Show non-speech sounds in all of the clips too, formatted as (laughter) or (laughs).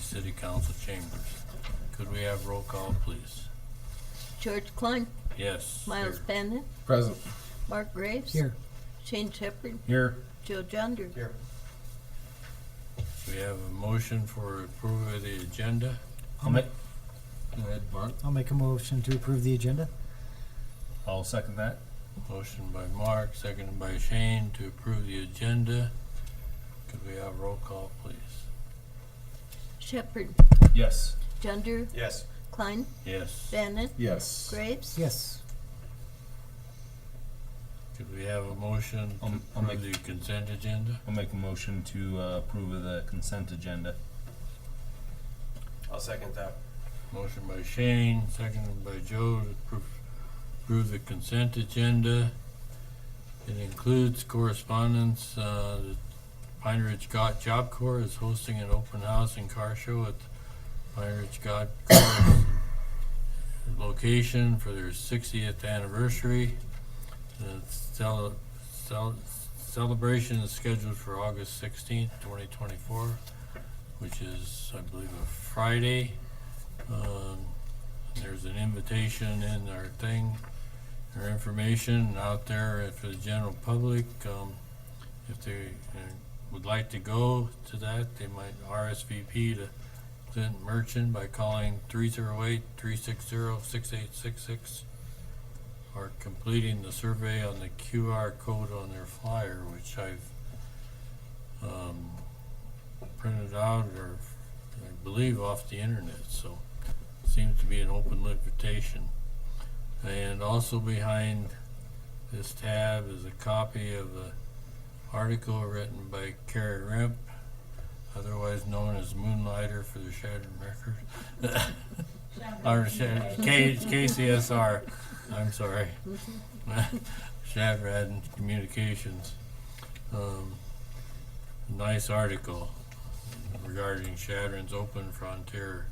City Council chambers. Could we have roll call, please? George Klein, Yes. Miles here. Bennett, Present. Mark Graves. Here. Shane Shepherd, Here. Joe Junder. Here. We have a motion for approval of the agenda. I'll make, I'll make a motion to approve the agenda. I'll second that. Motion by Mark, seconded by Shane to approve the agenda. Could we have roll call, please? Shepherd, Yes. Junder, Yes. Klein, Yes. Bennett, Yes. Graves. Yes, Could we have a motion I'll- to I'll approve the consent agenda? I'll make a motion to uh, approve of the consent agenda. I'll second that. Motion by Shane, seconded by Joe to approve, approve the consent agenda. It includes correspondence, uh, the Pine Ridge God Job Corps is hosting an open house and car show at Pine Ridge God Corps location for their sixtieth anniversary. The cel- cel- celebration is scheduled for August sixteenth, twenty twenty-four, which is, I believe, a Friday. Um, There's an invitation in our thing, our information out there for the general public. um, If they uh, would like to go to that, they might RSVP to Clinton Merchant by calling 308-360-6866 or completing the survey on the QR code on their flyer, which I've um, printed out or I believe off the internet, so seems to be an open invitation. And also behind this tab is a copy of an article written by Carrie Rimp, otherwise known as Moonlighter for the Shattered Record. (laughs) Or Sha- K- KCSR, I'm sorry. (laughs) Shattered Communications. Um, Nice article regarding Shadron's open frontier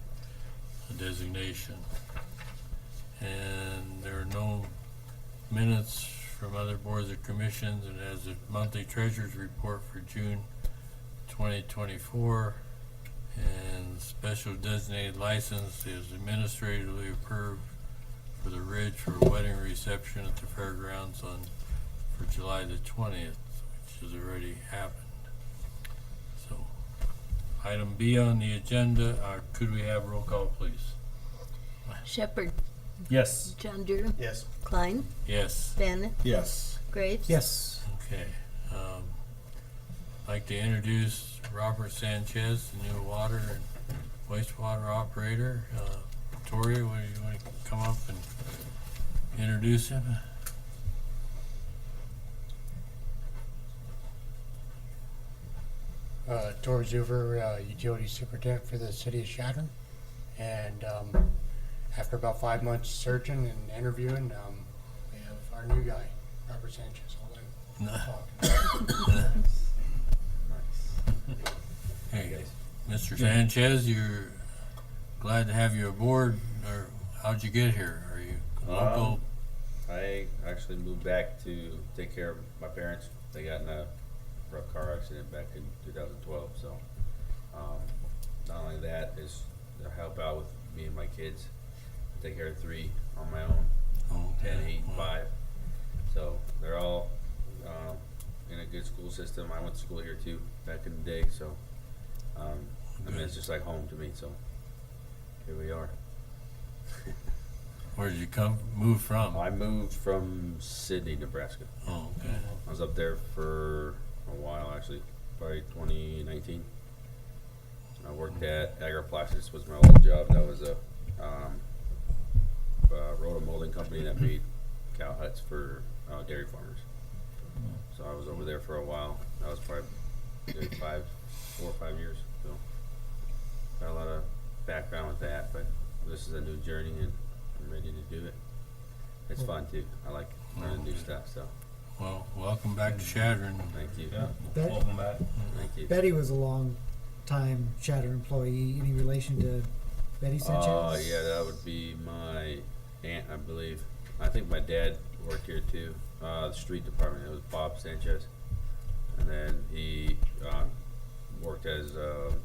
designation. And there are no minutes from other boards or commissions, and as a monthly treasurer's report for June twenty twenty-four. And special designated license is administratively approved for the Ridge for a wedding reception at the fairgrounds on, for July the twentieth, which has already happened. So, Item B on the agenda, uh, could we have roll call, please? Shepherd, Yes. Junder, Yes. Klein, Yes, Bennett, Yes. Graves. yes, okay. Um, I'd like to introduce Robert Sanchez, the new water and wastewater operator. Uh, Tori, would you want to come up and introduce him? (laughs) uh, Tor Zuver, uh, Utility Superintendent for the City of Chadron. And um, after about five months searching and interviewing, um, we have our new guy, Robert Sanchez. Hold on. Talk. Hey, Mr. Sanchez, you're glad to have you aboard, or how'd you get here? Are you local? I actually moved back to take care of my parents. They got in a rough car accident back in 2012. So, um, not only that is to help out with me and my kids. I take care of three on my own, Oh, ten, eight, well, and five. So they're all um, in a good school system. I went to school here too back in the day. So, um, I mean, it's just like home to me. So, here we are. Where'd you come, move from? I moved from Sydney, Nebraska. Oh, okay. I was up there for a while actually, probably 2019. I worked at Agroplastics was my old job. That was a um, uh, roto molding company that made cow huts for uh, dairy farmers. So I was over there for a while. That was probably good five, four or five years. So got a lot of background with that, but this is a new journey and I'm ready to do it. It's fun too. I like learning new stuff. So Well, welcome back to Shadron. thank you. Yeah. Bet- Welcome back. Thank you. Betty was a long time Shatter employee. Any relation to Betty Sanchez? Oh yeah, that would be my aunt, I believe. I think my dad worked here too. Uh, the street department. It was Bob Sanchez, and then he um, worked as uh,